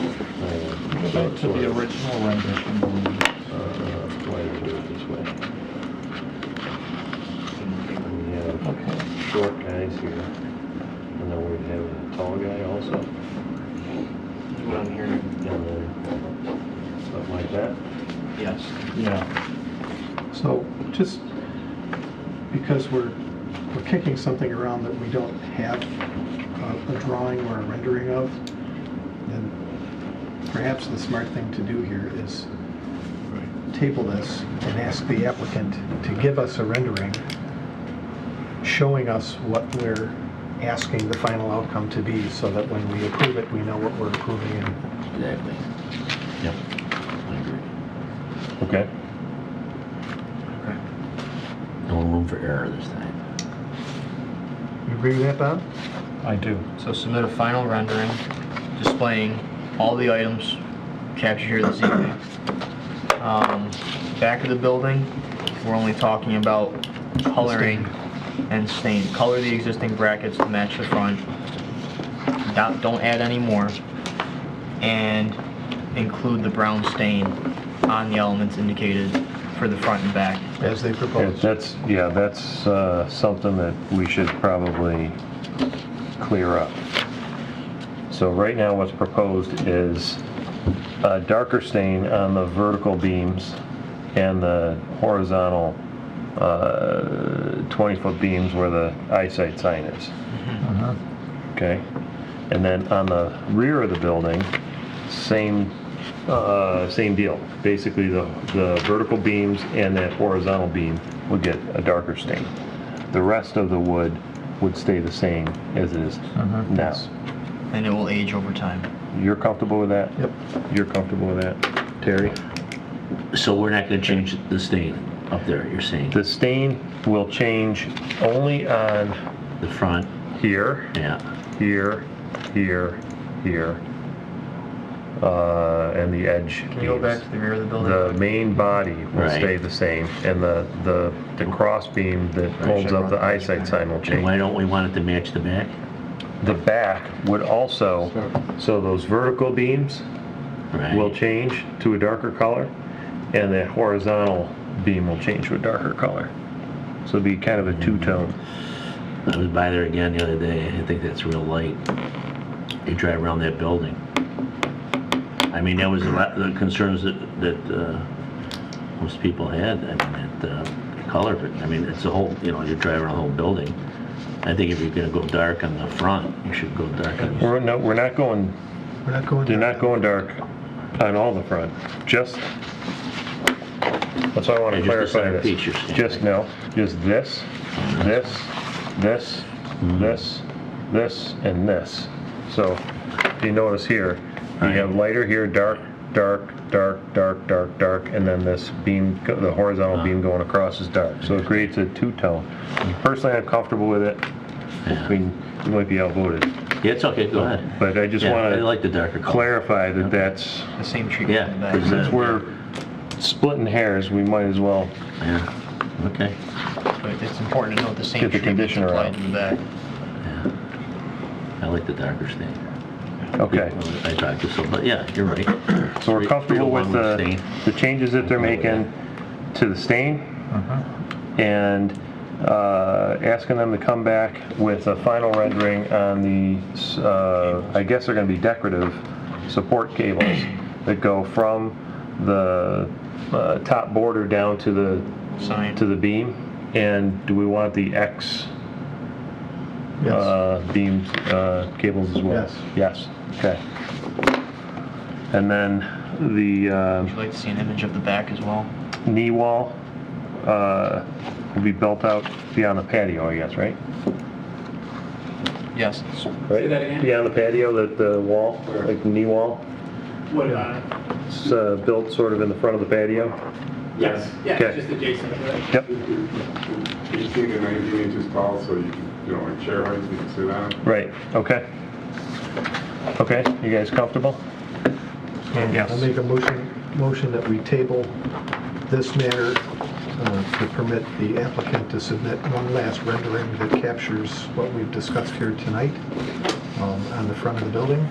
uh, Back to sort the of, original rendition. uh, plan to do it this way. And we have Okay. short guys here, and then we'd have a tall guy also, What I'm hearing, and then something like that. yes. Yeah. So just because we're, we're kicking something around that we don't have uh, a- a drawing or a rendering of, then perhaps the smart thing to do here is table this and ask the applicant to give us a rendering showing us what we're asking the final outcome to be so that when we approve it, we know what we're approving and Exactly. Yep, I agree. Okay. Okay. No room for error this time. you agree with that, Bob? I do. So submit a final rendering displaying all the items captured here this evening. Um, Back of the building, we're only talking about coloring and stain. Color the existing brackets to match the front. Don't don't add any more. And include the brown stain on the elements indicated for the front and back. As they Yeah, proposed. That's, yeah, that's uh, something that we should probably clear up. So right now, what's proposed is a darker stain on the vertical beams and the horizontal 20-foot beams where the eyesight sign is. Okay? And then on the rear of the building, same, uh, same deal. Basically, the, the vertical beams and that horizontal beam would get a darker stain. The rest of the wood would stay the same as it is Mm-hmm. now. And it will age over time. You're comfortable with that? Yep. You're comfortable with that? Terry? So we're not gonna change the stain up there, you're saying? The stain will change only on The front, here, yeah. here, here, here, uh, and the edge Can we go back beams. to the rear of the building? The main body will Right. stay the same, and the, the, the cross beam that holds up the eyesight sign will And why change. don't we want it to match the back? The back would also, so those vertical beams Right. will change to a darker color, and the horizontal beam will change to a darker color. So it'd be kind of a two-tone. I was by there again the other day, I think that's real light. You drive around that building. I mean, that was a lot, the concerns that, that, uh, most people had, I mean, that, uh, the color of it, I mean, it's a whole, you know, you drive around the whole building. I think if you're gonna go dark on the front, you should go dark on the, We're, no, we're not going, We're not going. they're not going dark on all the front, just, that's why I want to Yeah, just the clarify center piece you're this. saying. Just, no, just this, this, this, Mm-hmm. this, this, and this. So, if you notice here, you have lighter here, dark, dark, dark, dark, dark, dark, and then this beam, go- the horizontal beam Uh-huh. going across is dark. So it creates a two-tone. Personally, I'm comfortable with it. I mean, you might be outvoted, yeah, it's okay, go ahead. but I just Yeah, want to. I like the darker color. clarify that that's, The same treatment Yeah. in the back. 'cause since that- we're splitting hairs, we might as well, Yeah, okay. But it's important to note the same Get the treatment's conditioner applied out. to the back. Yeah. I like the darker stain. okay. I talked to some, but yeah, you're right. So we're Three- comfortable three with to the, one stain. the changes that they're Comfortable making to the stain Uh-huh. and uh, asking them to come back with a final rendering on the, uh, I guess they're gonna be decorative support cables that go from the uh, top border down to the Sign. to the beam, and do we want the X uh, beam uh, cables as well? Yes. Yes. okay. And then the Would uh, you like to see an image of the back as well? knee wall uh, will be built out beyond the patio, I guess, right? Yes. Say that again? Beyond the patio, that the wall, like the knee wall, What, uh, it's uh, built sort of in the front of the patio? yes, yeah, Okay. it's just adjacent to it. Yep, Eighteen and nineteen inches tall, so you can, you know, like chair height, you can sit on it. right, okay. Okay, you guys comfortable? I'll make a motion, motion that we table this matter uh, to permit the applicant to submit one last rendering that captures what we've discussed here tonight um, on the front of the building.